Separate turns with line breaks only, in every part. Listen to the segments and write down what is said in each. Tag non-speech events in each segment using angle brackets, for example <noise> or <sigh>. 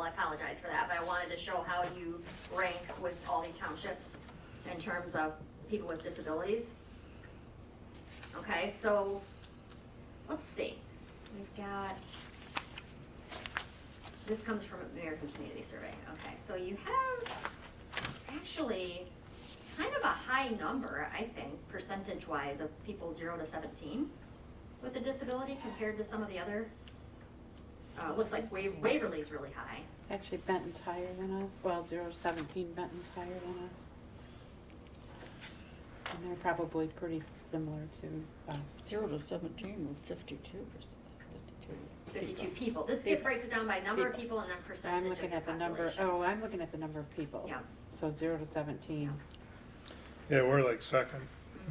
I apologize for that, but I wanted to show how you rank with all the townships in terms of people with disabilities. Okay, so, let's see, we've got, this comes from American Community Survey, okay, so you have actually kind of a high number, I think, percentage-wise of people zero to seventeen with a disability compared to some of the other, uh, looks like Wa- Waverly's really high.
Actually, Benton's higher than us, well, zero seventeen, Benton's higher than us. And they're probably pretty similar to us.
Zero to seventeen were fifty-two percent, fifty-two.
52 people. This it breaks it down by number of people
People.
and then
So I'm
percentage of
looking
your
at the number,
population.
oh, I'm looking at the number of people.
Yeah.
So zero to seventeen.
Yeah, we're like second.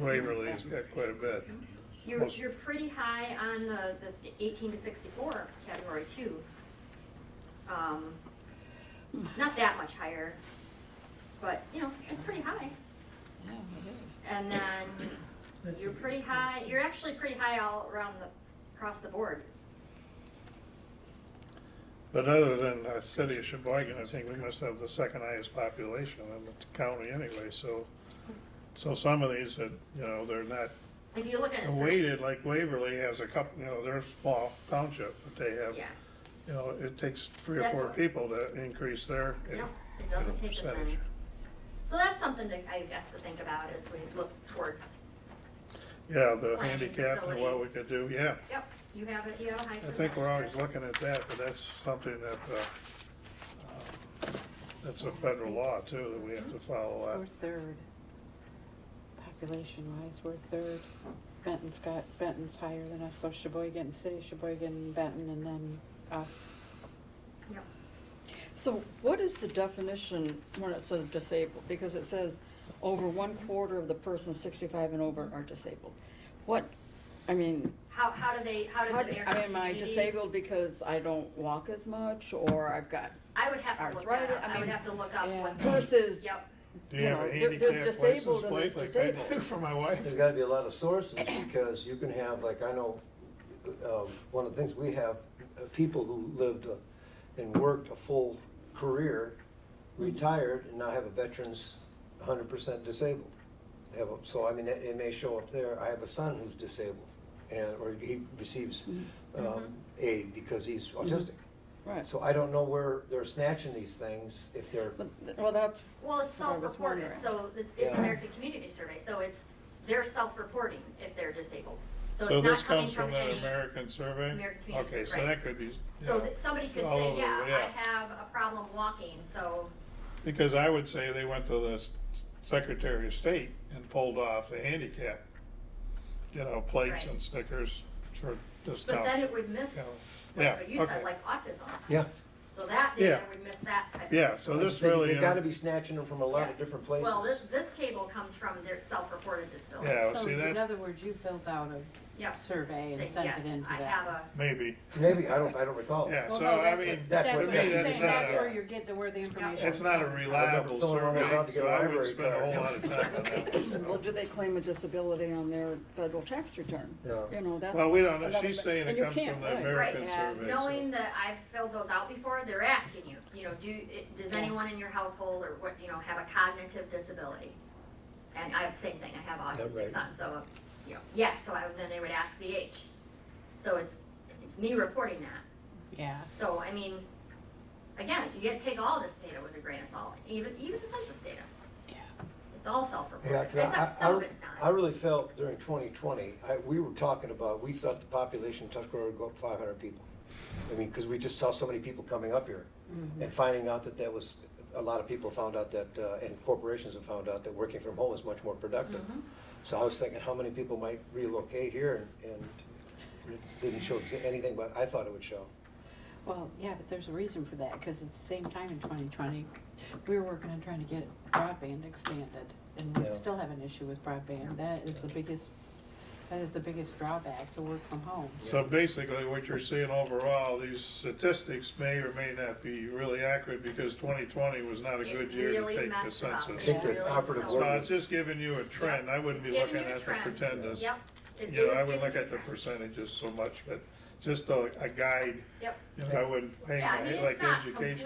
Waverly's got quite a bit.
You're,
most-
you're pretty high on the, this 18 to 64 category too. Um, Not that much higher, but, you know, it's pretty high.
Yeah, it
And then you're pretty high, you're actually pretty high all around the, across the board.
But other than uh, city of Sheboygan, I think we must have the second highest population in the county anyway, so. So some of these that, you know, they're not
If you look at it,
weighted, like Waverly has a couple, you know, they're a small township, but they have,
yeah,
you know, it takes three or
That's
four
what-
people to increase their. you
no,
know,
it doesn't take as
percentage.
many. So that's something to, I guess, to think about as we look towards,
Yeah, the
Planning
handicap and what we
facilities.
could do, yeah.
yep, you have it, you have a high
I
percentage.
think we're always
there.
looking at that, but that's something that, uh, uh, that's a federal law too, that we have to follow
We're
up.
third. Population wise, we're third. Benton's got, Benton's higher than us, so Sheboygan, City of Sheboygan, Benton, and then us.
Yep.
is. So what is the definition when it says disabled? Because it says over one quarter of the persons sixty-five and over are disabled. What, I mean,
How, how do they, how did
how
the
do-
American
I am I
community-
disabled because I don't walk as much or I've got
I would have to look that
arthritis?
up, I would
mean,
have to look up
yeah.
what.
Versus,
Yep,
Do you have
you
a
know, there- there's
handicap license
disabled and
plate like
there's
I
disabled. <laughs>
do for my wife?
There's gotta be a lot of sources, because you can have, like, I know, um, one of the things we have, uh, people who lived uh, and worked a full career, retired, and now have a veteran's hundred percent disabled. They have, a- so, I mean, it, it may show up there, I have a son who's disabled, and, or he receives, um, aid because he's autistic.
Mm-hmm. right.
So I don't know where they're snatching these things, if they're,
But th- Well, that's,
well, it's
That's what I was
self-reported,
wondering.
so it's, it's
Yeah.
American Community Survey, so it's, they're self-reporting if they're disabled. So
So
it's
this
not coming
comes from
from
that
any,
American survey?
American Community
Okay, so
Survey.
that could be, you
so
know,
that somebody could
all
say,
over,
yeah, I
yeah.
have a problem walking, so,
because I would say they went to the s- Secretary of State and pulled off the handicap, you know, plates
Right.
and stickers for this town.
but then it would miss,
Yeah. Yeah,
like what you said,
okay.
like autism.
yeah,
So that data
Yeah.
would miss that type of.
Yeah, so this
they,
really.
they
uh,
gotta be snatching them from a lot
Yeah.
of different places.
Well, this, this table comes from their self-reported disabilities.
Yeah,
So
see
in
that,
other words, you filled out
Yep,
a survey and
saying,
sent
yes,
it into
I
that.
have a,
maybe,
Maybe, I don't, I don't recall.
yeah,
Well,
so
no,
I
that's
mean,
That's
That's
to
what
what
me,
I'm
I'm
that's
saying,
not
that's
a.
where you're getting, the- where the information.
It's not a
comes from.
reliable
filling one of those out
survey,
to get
so
a
I would
library
spend a whole lot
card.
of time on
well,
that.
do they claim a disability on their federal tax return?
Yeah.
You know, that's.
Well, we don't, know.
another
she's
bit-
saying it
and you
comes
can't,
from the
right.
American
Right,
yeah.
survey.
knowing
so-
that I've filled those out before, they're asking you, you know, do, it- does
Yeah.
anyone in your household or what, you know, have a cognitive disability? And I, same thing, I have autistic
right.
son, so, you know, yes, so I, then they would ask the age. So it's, it's me reporting that.
Yeah.
So, I mean, again, you get to take all this data with a grain of salt, even, even the census data.
Yeah.
It's all
Yeah,
self-reported,
'cause I-
except some of
I-
it's
I
not.
really felt during 2020, I, we were talking about, we thought the population of Tuscarora would go up 500 people. I mean, because we just saw so many people coming up here
Mm-hmm.
and finding out that that was, a lot of people found out that, uh, and corporations have found out that working from home is much more productive.
Mm-hmm.
So I was thinking, how many people might relocate here and, and it didn't show exa- anything, but I thought it would show.
Well, yeah, but there's a reason for that, because at the same time in twenty twenty, we were working on trying to get broadband expanded, and we
Yeah.
still have an issue with broadband, that is the biggest, that is the biggest drawback to work from home.
So basically, what you're seeing overall, these statistics may or may not be really accurate because 2020 was not a
It
good year to
really
take the
messed it up.
I
census.
think
Yeah.
the operative
So
So
word
it's
is,
just giving you a trend. I wouldn't be
It's giving
looking
you a
at the
trend.
pretenders.
Yep. It-
You
it
know,
is
I
giving
wouldn't look
you a
at the
trend.
percentages so much, but just a, a guide,
Yep.
you know, I wouldn't, hang
Yeah, I
my-
mean, it's
like
not
education.